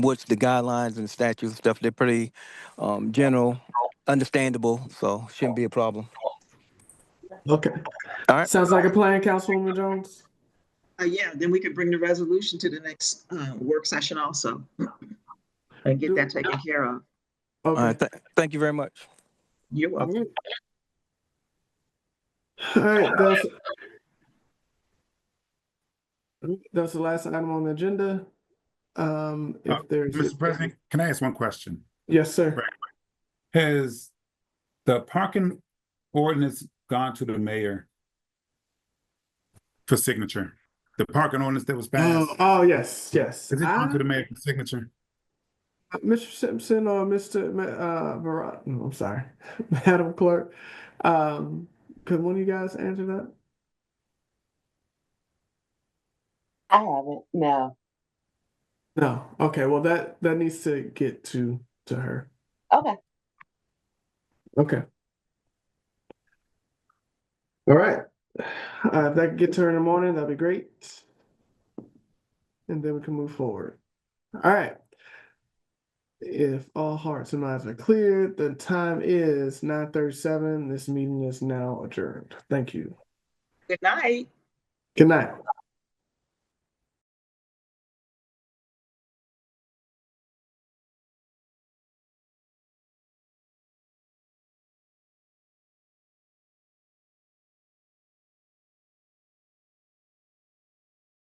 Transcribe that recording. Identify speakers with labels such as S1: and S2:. S1: what's the guidelines and statutes and stuff. They're pretty um, general, understandable, so shouldn't be a problem.
S2: Okay.
S1: All right.
S2: Sounds like a plan, Councilwoman Jones.
S3: Uh, yeah, then we could bring the resolution to the next, uh, work session also. And get that taken care of.
S1: All right.
S2: Okay.
S1: Th- thank you very much.
S3: You're welcome.
S2: All right, that's. That's the last item on the agenda. Um,
S4: Uh,
S2: if there's.
S4: Mr. President, can I ask one question?
S2: Yes, sir.
S4: Has the parking ordinance gone to the mayor for signature? The parking ordinance that was
S2: Oh,
S4: passed,
S2: oh, yes, yes.
S4: has it gone to
S2: I-
S4: the mayor for signature?
S2: Mr. Simpson or Mr. Ma- Uh, Barat, no, I'm sorry, Madam Clerk. Um, could one of you guys answer that?
S5: I haven't, no.
S2: No, okay, well, that, that needs to get to, to her.
S5: Okay.
S2: Okay. All right, uh, if that could get to her in the morning, that'd be great. And then we can move forward. All right. If all hearts and minds are clear, the time is nine thirty-seven. This meeting is now adjourned. Thank you.
S3: Good night.
S2: Good night.